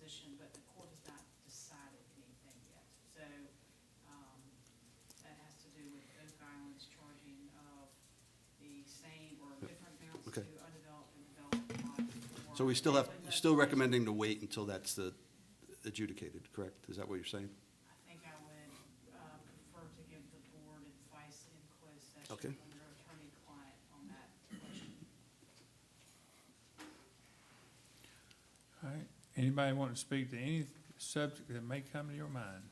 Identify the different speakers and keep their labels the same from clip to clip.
Speaker 1: position, but the court has not decided anything yet. So, um, that has to do with Oak Island's charging of the same or different amounts to
Speaker 2: Okay.
Speaker 1: undeveloped and developed lots. for-
Speaker 2: So we still have,
Speaker 1: But
Speaker 2: still
Speaker 1: the-
Speaker 2: recommending to wait until that's uh, adjudicated, correct? Is that what you're saying?
Speaker 1: I think I would uh, prefer to give the board advice in closed session
Speaker 2: Okay.
Speaker 1: under attorney-client on that question.
Speaker 3: All right, anybody want to speak to any subject that may come to your mind?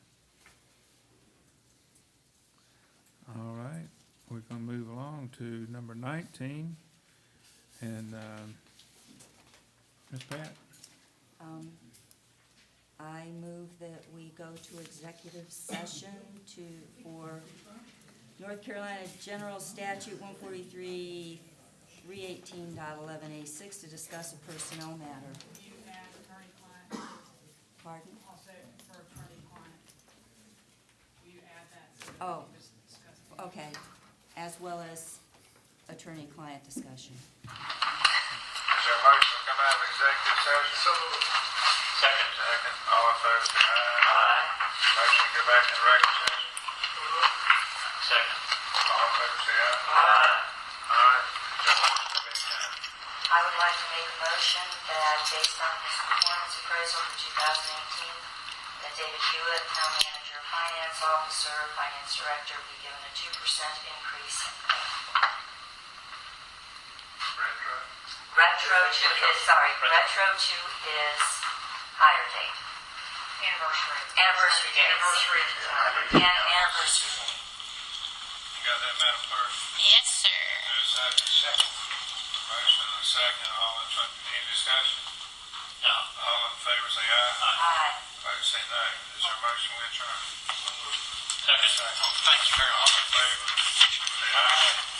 Speaker 3: All right, we're gonna move along to number nineteen, and, um, Ms. Pat,
Speaker 4: Um, I move that we go to executive session to, for North Carolina General Statute one forty-three, three eighteen A six to discuss a personnel matter.
Speaker 1: Can you add attorney-client,
Speaker 4: Pardon?
Speaker 1: also for attorney-client? Will you add that so that
Speaker 4: Oh.
Speaker 1: we can just discuss? it?
Speaker 4: Okay, as well as attorney-client discussion.
Speaker 5: Is there a motion to come out of executive session? So Second. Second, all in favor, say aye. Aye. Motion to go back in regular session? Second. All in favor, say aye. Aye. All right.
Speaker 6: I would like to make a motion that based on his performance appraisal for 2018, that David Hewitt, town manager, finance officer, finance director, be given a 2% increase in pay.
Speaker 5: Retro.
Speaker 6: Retro to his, sorry, retro to his hire date. Anniversary. Anniversary date. Anniversary. And anniversary date.
Speaker 5: You got that, Madam Clerk?
Speaker 7: Yes, sir.
Speaker 5: There's a second. Motion and a second, all in, fa- any discussion?
Speaker 7: No.
Speaker 5: All in favor, say aye.
Speaker 6: Aye.
Speaker 5: Opposed, say no. Is there a motion we adjourn?
Speaker 7: Second. Thank you very much.
Speaker 5: All in favor, say aye.